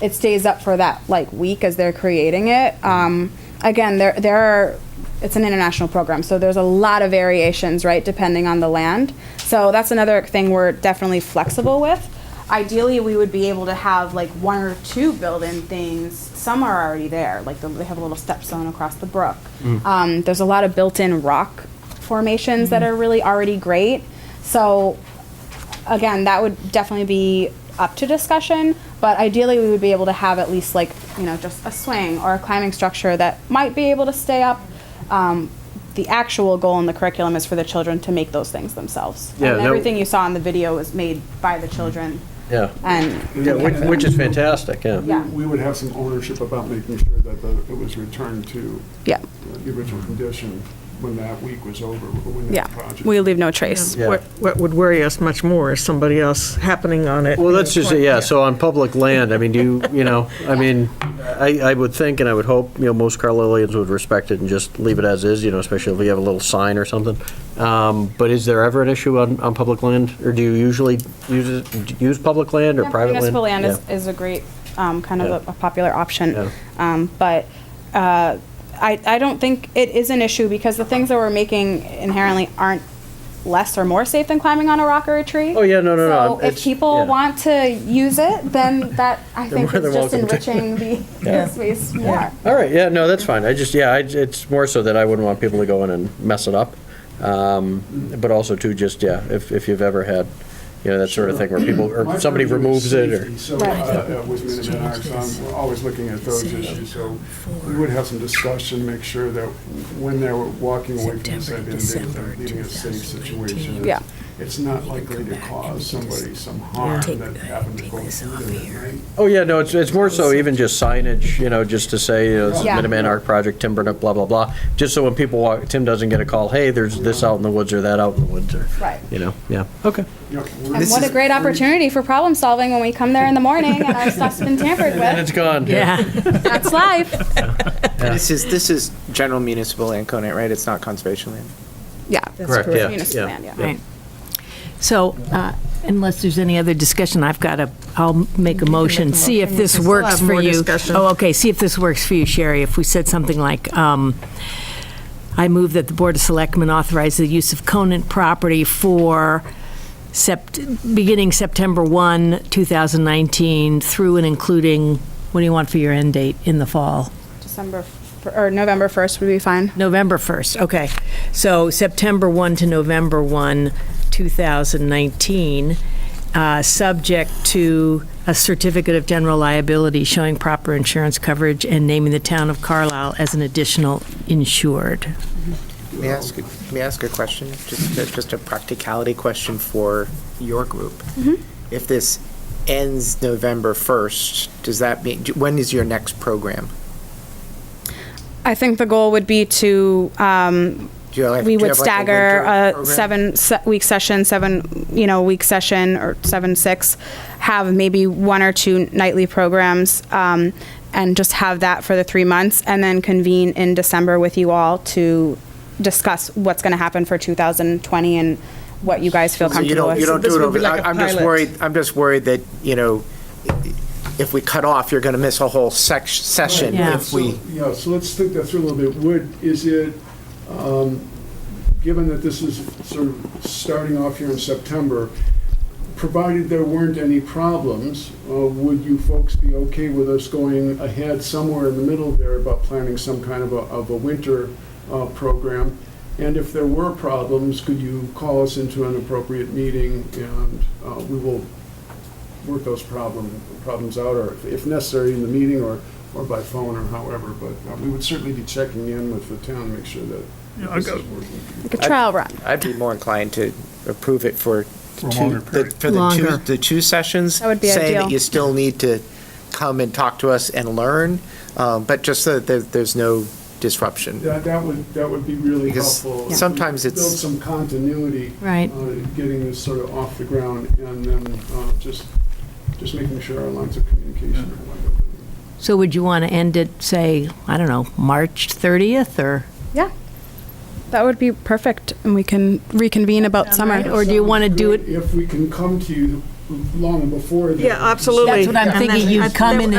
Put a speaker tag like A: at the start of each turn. A: it stays up for that like week as they're creating it. Um, again, there there are it's an international program, so there's a lot of variations, right, depending on the land. So that's another thing we're definitely flexible with. Ideally, we would be able to have like one or two built-in things. Some are already there, like the, they have a little stepstone across the brook. Um, there's a lot of built-in rock formations that are really already great. So again, that would definitely be up to discussion, but ideally we would be able to have at least like, you know, just a swing or a climbing structure that might be able to stay up. Um, the actual goal in the curriculum is for the children to make those things themselves.
B: Yeah,
A: and
B: that-
A: everything you saw in the video was made by the children.
B: Yeah,
A: And
B: yeah, which, which is fantastic, yeah.
A: Yeah.
C: We would have some ownership about making sure that the- it was returned to
A: yeah,
C: the original
B: Mm-hmm.
C: condition when that week was over, or when
A: yeah,
C: that project.
A: we leave no trace.
B: Yeah.
D: What, what would worry us much more is somebody else happening on it.
B: Well, that's just, yeah, so on public land, I mean, do you, you know, I mean, I, I would think and I would hope, you know, most Carlileans would respect it and just leave it as is, you know, especially if you have a little sign or something. Um, But is there ever an issue on, on public land? Or do you usually use, it- use public land or
A: Yeah,
B: private land?
A: Municipal land is,
B: Yeah.
A: is a great, um, kind of a
B: Yeah.
A: a popular option.
B: Yeah.
A: Um, but, uh, I, I don't think it is an issue because the things that we're making inherently aren't less or more safe than climbing on a rock or a tree.
B: Oh, yeah, no, no, no,
A: So if
B: it's-
A: people
B: yeah.
A: want to use it, then that, I think
B: more
A: is
B: than
A: just
B: welcome to.
A: enriching the- the space more.
B: All right, yeah, no, that's fine. I just, yeah, I- it's more so that I wouldn't want people to go in and mess it up. Um, But also too, just, yeah, if, if you've ever had, you know, that sort of thing where people,
C: My
B: or somebody
C: purview
B: removes
C: is
B: it or.
C: safety, So, uh,
A: Right.
C: uh, with Minuteman Arts, I'm we're always looking at those issues, so we would have some discussion, make sure that when they're walking away from the site,
E: September
C: they're
E: to December
C: leaving a safe
E: 2019.
C: situation.
A: Yeah.
C: It's not likely to cause somebody some harm
E: Take-
C: that happened to
E: take
C: go
E: this
C: through
E: off
C: there, right?
B: Oh, yeah, no, it's, it's more so even just signage, you know, just to say, you know, it's
A: Yeah.
B: Minuteman Art Project, timber, blah, blah, blah. Just so when people walk, Tim doesn't get a call, hey, there's this out in the woods or that out in the woods or,
A: Right.
B: you know, yeah, okay.
C: You know, we're-
A: And what a great opportunity for problem solving when we come there in the morning and our stuff's been tampered
B: And it's
A: with.
B: gone.
D: Yeah.
A: That's life.
F: This is, this is general municipal land covenant, right? It's not conservation land.
A: Yeah.
B: Correct, yeah.
A: Municipal land, yeah.
D: Right.
E: So uh, unless there's any other discussion, I've got a, I'll make a motion, see if this
D: We'll have
E: works for
D: more
E: you.
D: discussion.
E: Oh, okay, see if this works for you, Sherry. If we said something like, um, I move that the Board of Selectmen authorize the use of Conant property for sept, beginning September 1, 2019, through and including, what do you want for your end date in the fall?
A: December, f- or November 1st would be fine.
E: November 1st, okay. So September 1 to November 1, 2019, uh, subject to a certificate of general liability showing proper insurance coverage and naming the town of Carlisle as an additional insured.
F: May I ask, may I ask a question? Just, a- just a practicality question for your group.
D: Mm-hmm.
F: If this ends November 1st, does that mean, when is your next program?
A: I think the goal would be to, um,
F: Do you
A: we
F: have- do you
A: would
F: have like a
A: stagger
F: winter
A: a
F: program?
A: seven se- week session, seven, you know, week session or seven, six, have maybe one or two nightly programs, um, and just have that for the three months and then convene in December with you all to discuss what's going to happen for 2020 and what you guys feel
F: So you
A: comfortable
F: don't,
A: with.
F: you don't
D: this
F: do it
D: would be
F: over, I-
D: like a
F: I'm just
D: pilot.
F: worried, I'm just worried that, you know, if we cut off, you're going to miss a whole sec, session
E: Yeah.
F: if we.
C: So, Yeah, so let's think that through a little bit. Would, is it, um, given that this is sort of starting off here in September, provided there weren't any problems, uh, would you folks be okay with us going ahead somewhere in the middle there about planning some kind of a, of a winter uh, program? And if there were problems, could you call us into an appropriate meeting and uh, we will work those problem, problems out, or if- if necessary, in the meeting or, or by phone or however, but uh, we would certainly be checking in with the town, to make sure that this is working.
A: Like a trial run.
F: I'd be more inclined to approve it for two,
C: longer
F: the- for the
E: Longer.
F: two, the two sessions.
A: That would be
F: Saying
A: ideal.
F: that you still need to come and talk to us and learn, um, but just so that there- there's no disruption.
C: That, that would, that would be really
F: Because
C: helpful.
F: Yeah. sometimes it's-
C: Build some continuity.
E: Right.
C: uh, Getting this sort of off the ground and then uh, just, just making sure our lines of communication are wide open.
E: So would you want to end it, say, I don't know, March 30th or?
A: Yeah. That would be perfect. And we can reconvene about summer.
E: right? Or do you wanna do it-
C: If we can come to you long before. the-
D: Yeah, absolutely.
E: That's what I'm
D: And
E: thinking,
D: then-
E: you'd come in and